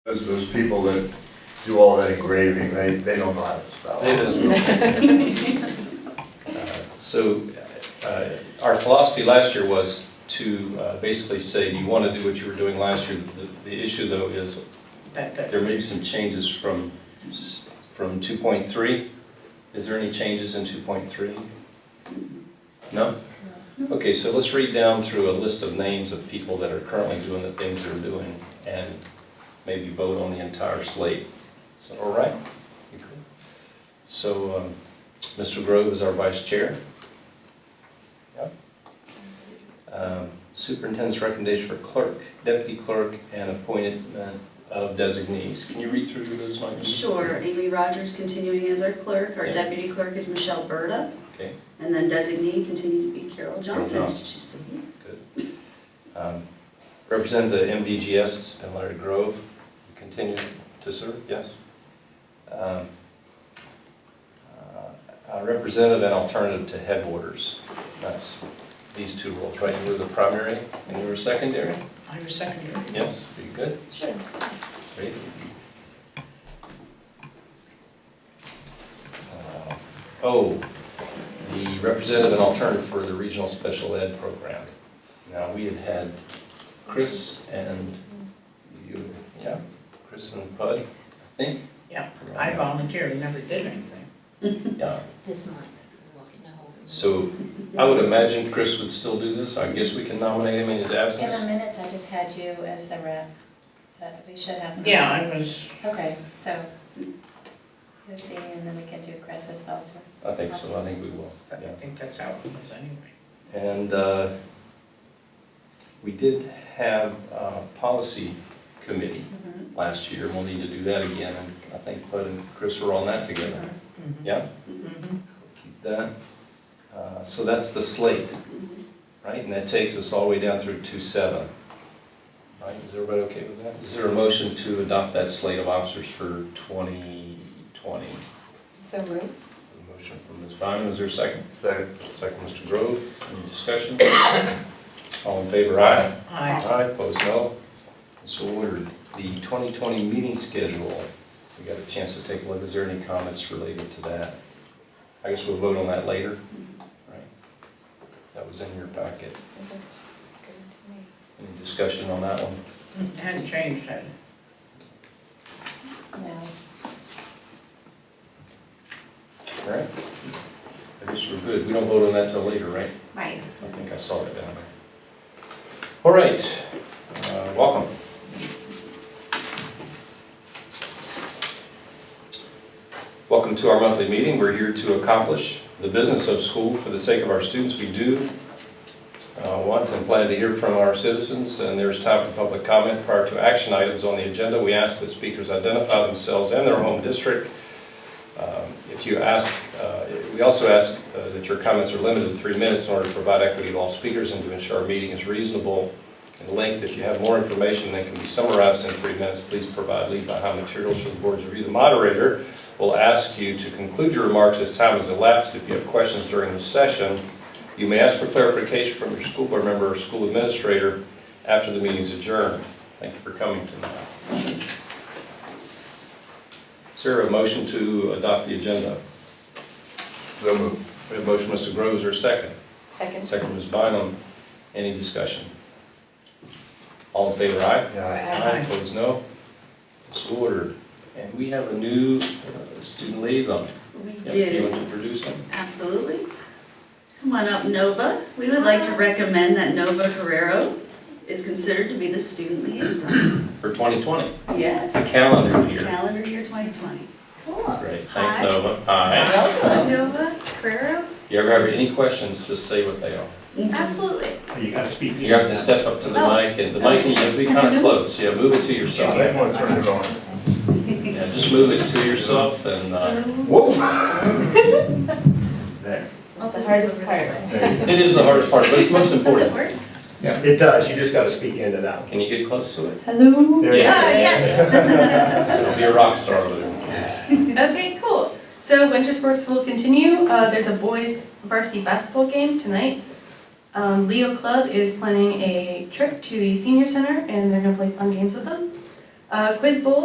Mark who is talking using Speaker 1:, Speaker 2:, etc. Speaker 1: Those, those people that do all that engraving, they, they don't know how to spell.
Speaker 2: It is. Uh, So, uh, our philosophy last year was to uh, basically say, you want to do what you were doing last year. The- The issue, though, is there may be some changes from, from 2.3. Is there any changes in 2.3? No? Okay, so let's read down through a list of names of people that are currently doing the things they're doing, and maybe vote on the entire slate. So, all right? You cool? So, um, Mr. Grove is our vice chair. Yep. Um, Superintendent's recommendation for clerk, deputy clerk, and appointment of designees. Can you read through those, Michael?
Speaker 3: Sure, Amy Rogers continuing as our clerk, our
Speaker 2: Yeah.
Speaker 3: deputy clerk is Michelle Berta,
Speaker 2: Okay,
Speaker 3: and then designee continue to be Carol Johnson.
Speaker 2: Johnson.
Speaker 3: She's still here.
Speaker 2: good. Um, Representative MVGS has been Larry Grove. You Continue to serve, yes. Um, uh, uh, Representative and alternative to headwaters. That's these two roles, right? You were the primary and you were secondary?
Speaker 4: I was secondary.
Speaker 2: Yes, very good.
Speaker 3: Sure.
Speaker 2: Great. Uh, Oh, the representative and alternative for the regional special ed program. Now, we had had Chris and you, yeah, Chris and Bud, I think.
Speaker 4: Yeah, I volunteered, never did anything.
Speaker 2: Yeah,
Speaker 5: this month, we're looking to hold. it.
Speaker 2: so I would imagine Chris would still do this. I guess we can nominate him in his
Speaker 6: In the
Speaker 2: absence.
Speaker 6: minutes, I just had you as the rep, but we should have.
Speaker 4: Yeah, I was,
Speaker 6: Okay, so, you'll see, and then we can do Chris as Belter.
Speaker 2: I think so, I think we will,
Speaker 4: I
Speaker 2: yeah.
Speaker 4: think that's how it was anyway.
Speaker 2: And uh, we did have a policy committee last year, and we'll need to do that again. And I think Bud and Chris were on that together. Yeah,
Speaker 4: Mhm.
Speaker 2: keep that. Uh, So that's the slate, right? And that takes us all the way down through two seven. Right, is everybody okay with that? Is there a motion to adopt that slate of officers for 2020?
Speaker 6: So moved.
Speaker 2: Motion from Ms. Bynum, is there a second?
Speaker 1: Second.
Speaker 2: Second, Mr. Grove, any discussion? All in favor, aye?
Speaker 4: I,
Speaker 2: Aye, opposed no. So ordered. The 2020 meeting schedule, we got a chance to take a look. Is there any comments related to that? I guess we'll vote on that later, right? That was in your packet. Any discussion on that one?
Speaker 4: hadn't changed that.
Speaker 6: No,
Speaker 2: All right? I guess we're good. We don't vote on that till later, right?
Speaker 6: right.
Speaker 2: I think I saw it down there. All right, uh, welcome. Welcome to our monthly meeting. We're here to accomplish the business of school for the sake of our students. We do uh, want and plan to hear from our citizens, and there's time for public comment prior to action items on the agenda. We ask that speakers identify themselves and their home district. Um, If you ask, uh, we also ask uh, that your comments are limited to three minutes in order to provide equity to all speakers and to ensure our meeting is reasonable in length. If you have more information that can be summarized in three minutes, please provide lead behind materials for the board's review. The moderator will ask you to conclude your remarks as time has elapsed. If you have questions during the session, you may ask for clarification from your school board member or school administrator after the meeting is adjourned. Thank you for coming tonight. Is there a motion to adopt the agenda?
Speaker 1: So moved.
Speaker 2: We have a motion, Mr. Groves, or second?
Speaker 6: Second.
Speaker 2: Second, Ms. Bynum. Any discussion? All in favor, aye?
Speaker 1: Yeah,
Speaker 4: Aye.
Speaker 2: Opposed, no? It's ordered. And we have a new uh, student liaison.
Speaker 3: We
Speaker 2: Yeah,
Speaker 3: did.
Speaker 2: You want to introduce him?
Speaker 3: Absolutely. Come on up, Nova. We would like to recommend that Nova Guerrero is considered to be the student liaison.
Speaker 2: For 2020, the
Speaker 3: Yes,
Speaker 2: calendar year.
Speaker 3: calendar year 2020.
Speaker 6: Cool.
Speaker 2: Great, thanks,
Speaker 6: Hi.
Speaker 2: Nova. Aye.
Speaker 3: Hi,
Speaker 6: Welcome.
Speaker 3: Nova.
Speaker 6: Guerrero?
Speaker 2: You ever have any questions, just say what they are.
Speaker 6: Absolutely.
Speaker 7: You gotta speak.
Speaker 2: You have to step up to the
Speaker 6: Oh.
Speaker 2: mic, and the mic, you have to be kind of close. Yeah, move it to
Speaker 1: I
Speaker 2: yourself.
Speaker 1: might want to turn it on.
Speaker 2: Yeah, just move it to yourself and, uh,
Speaker 1: Whoa! There.
Speaker 6: That's the hardest part.
Speaker 1: There you go.
Speaker 2: it is the hardest part, but it's most
Speaker 6: Does it
Speaker 2: important.
Speaker 6: work?
Speaker 7: It does, you just gotta speak into that.
Speaker 2: Can you get close to it?
Speaker 6: Hello?
Speaker 1: There you
Speaker 2: Yeah.
Speaker 1: go.
Speaker 6: Oh, yes.
Speaker 2: It'll be a rock star over there.
Speaker 8: Okay, cool. So winter sports will continue. Uh, there's a boys varsity basketball game tonight. Um, Leo Club is planning a trip to the senior center and they're gonna play fun games with them. Uh, Quiz Bowl